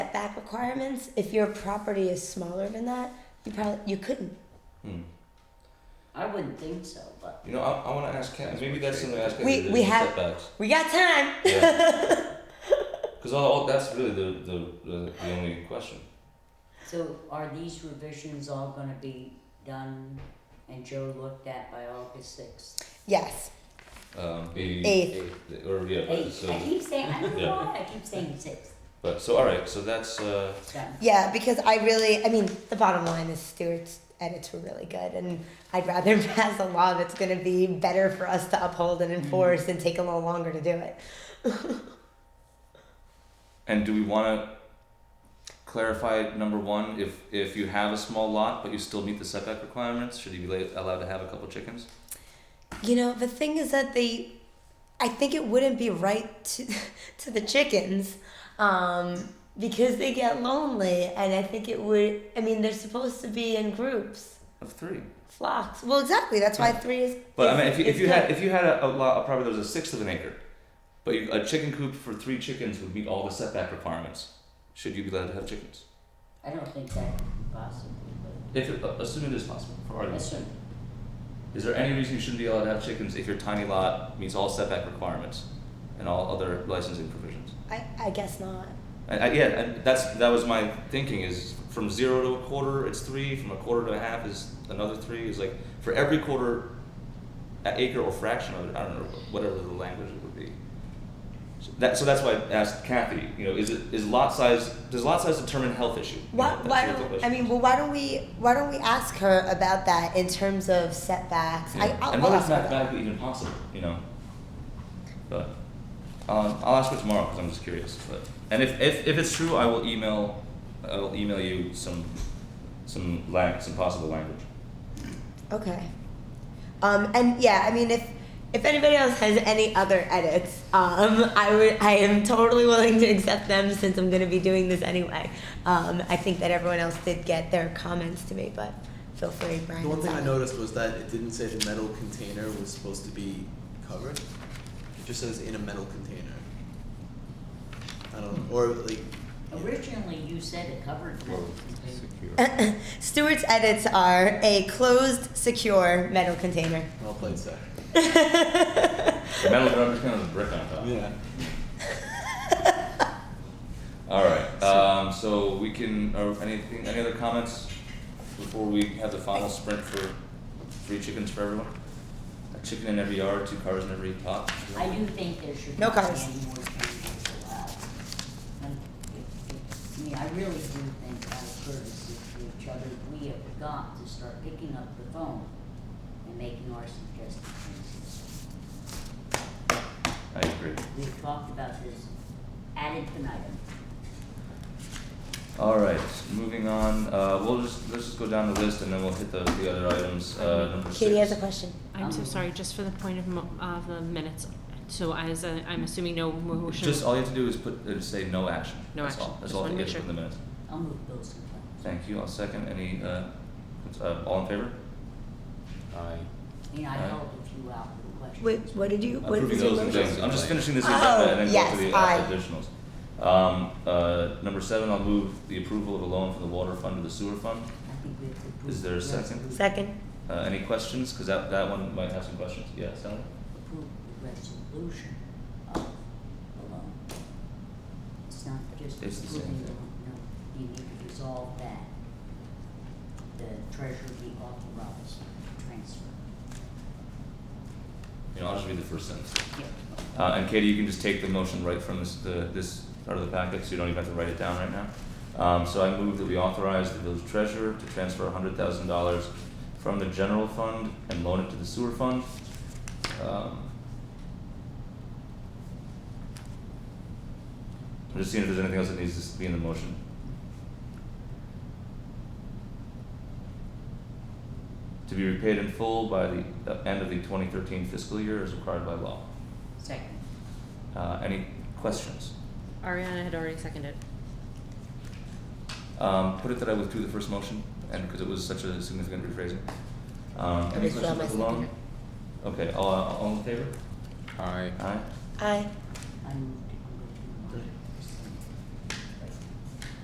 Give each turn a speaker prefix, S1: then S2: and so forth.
S1: requirements, if your property is smaller than that, you probably you couldn't.
S2: Hmm.
S3: I wouldn't think so, but
S2: You know, I, I want to ask Kat. Maybe that's something to ask Kat.
S1: We-
S2: the-
S1: we
S2: the
S1: have-
S2: setbacks.
S1: We got time.
S2: Yeah. Because all, all- that's really the the, the the only question.
S3: so are these revisions all gonna be done and Joe looked at by August sixth?
S1: Yes.
S2: Um, maybe
S1: Eighth.
S2: or yeah.
S3: Eight, I
S2: So,
S3: keep saying, I don't know
S2: Yeah.
S3: why, I keep saying six,
S2: but so all right. So that's uh,
S3: done.
S1: Yeah, because I really, I mean, the bottom line is Stewart's edits were really good, and I'd rather pass a law that's going to be better for us to uphold and enforce and take a little longer to do it.
S2: and do we want to clarify number one? If if you have a small lot but you still meet the setback requirements, should you be la- allowed to have a couple chickens?
S1: You know, the thing is that they, I think it wouldn't be right to, to the chickens um, because they get lonely, and I think it would, I mean, they're supposed to be in groups,
S2: Of three.
S1: flocks. Well, exactly. That's why three is.
S2: But I
S1: is-
S2: mean, if you, if
S1: is
S2: you
S1: good.
S2: had if you had a, a lot, a property that was a sixth of an acre, but you, a chicken coop for three chickens would meet all the setback requirements. Should you be allowed to have chickens?
S3: I don't think that could be possible,
S2: If it, assuming it is possible for
S3: but
S2: argument's sake.
S3: listen,
S2: Is there any reason you shouldn't be allowed to have chickens if your tiny lot meets all setback requirements and all other licensing provisions?
S1: I, I guess not.
S2: I, I, yeah, and that's that was my thinking is from zero to a quarter it's three, from a quarter to a half is another three. Is like for every quarter, a- acre or fraction of it, I don't know whatever the language it would be. So that so that's why I asked Kathy. You know, is it is lot size does lot size determine health issue? You know,
S1: Why,
S2: that's
S1: why
S2: what the
S1: don't, I
S2: question
S1: mean,
S2: is.
S1: well, why don't we, why don't we ask her about that in terms of setbacks? I,
S2: Yeah.
S1: I'll,
S2: and
S1: I'll
S2: whether
S1: ask
S2: it's
S1: her about that.
S2: mathematically even possible, you know. But um, I'll ask her tomorrow because I'm just curious. But and if, if, if it's true, I will email I will email you some some lang- some possible language.
S1: Okay. Um, and yeah, I mean, if, if anybody else has any other edits, um, I would, I am totally willing to accept them since I'm gonna be doing this anyway. Um, I think that everyone else did get their comments to me, but feel free, Brian.
S4: The one
S1: and
S4: thing I
S1: Sally.
S4: noticed was that it didn't say the metal container was supposed to be covered. It just says in a metal container. I don't, or like,
S3: originally you said it covered that.
S1: Stewart's edits are a closed, secure metal container.
S4: well played, sir.
S2: The metal drum is kind of a brick on top.
S4: Yeah.
S2: All right. Um, so we can. Or anything? Any other comments before we have the final sprint for three chickens for everyone? A chicken in every yard, two cars in every pot.
S3: I do think there should
S1: No
S3: not be
S1: cars.
S3: any more changes allowed. And it- it- I mean, I really do think out of courtesy to each other, we have got to start picking up the phone and making our suggested changes.
S2: I agree.
S3: We've talked about this ad infinitum.
S2: All right, moving on. Uh, we'll just let's just go down the list and then we'll hit the, the other items. Uh, number
S1: Katie
S2: six.
S1: has a question.
S5: I'm
S2: Um,
S5: so sorry, just for the point of, mo- of the minutes, so as, a- I'm assuming no motion?
S2: Just all you have to do is put uh, say no action.
S5: No
S2: That's
S5: action.
S2: All. That's
S5: Just
S2: all
S5: wanna
S2: you have
S5: make
S2: to put in the minutes.
S3: I'll move bills and claims.
S2: Thank you. I'll second. Any uh, uh, all in favor?
S3: I mean, I
S2: Aye.
S3: held a few out for questions.
S1: Wait, what did you? What
S2: Approving
S1: was your
S2: those and
S1: motion?
S2: things. I'm just finishing this
S1: Oh,
S2: agenda and then
S1: yes,
S2: go to the
S1: aye.
S2: uh, additionals. Um, uh, number seven, I'll move the approval of a loan from the water fund to the sewer fund.
S3: I think we have to approve.
S2: Is there a
S3: the
S2: second?
S3: resolution-
S1: Second.
S2: Uh, any questions? Because that, that one might have some questions. Yeah, Sally.
S3: Approve the resolution of the loan. It's not just
S2: It's the same
S3: approving the
S2: thing.
S3: loan, no, you need to resolve that. The treasurer be authorized to transfer.
S2: You know, I'll just read the first sentence.
S3: Yeah.
S2: Uh, and Katie, you can just take the motion right from this, the, this part of the packet, so you don't even have to write it down right now. Um, so I move that we authorize the village treasurer to transfer hundred thousand dollars from the general fund and loan it to the sewer fund. Um, I'm just seeing if there's anything else that needs to be in the motion. To be repaid in full by the uh, end of the twenty thirteen fiscal year as required by law.
S3: Second.
S2: Uh, any questions?
S5: Ariana had already seconded.
S2: Um, put it that I withdrew the first motion, and because it was such a significant rephrasing. Um,
S1: I
S2: any
S1: withdraw
S2: questions with the
S1: my
S2: loan?
S1: second.
S2: Okay, all, all in favor?
S6: Aye.
S2: Aye.
S1: Aye.
S3: I moved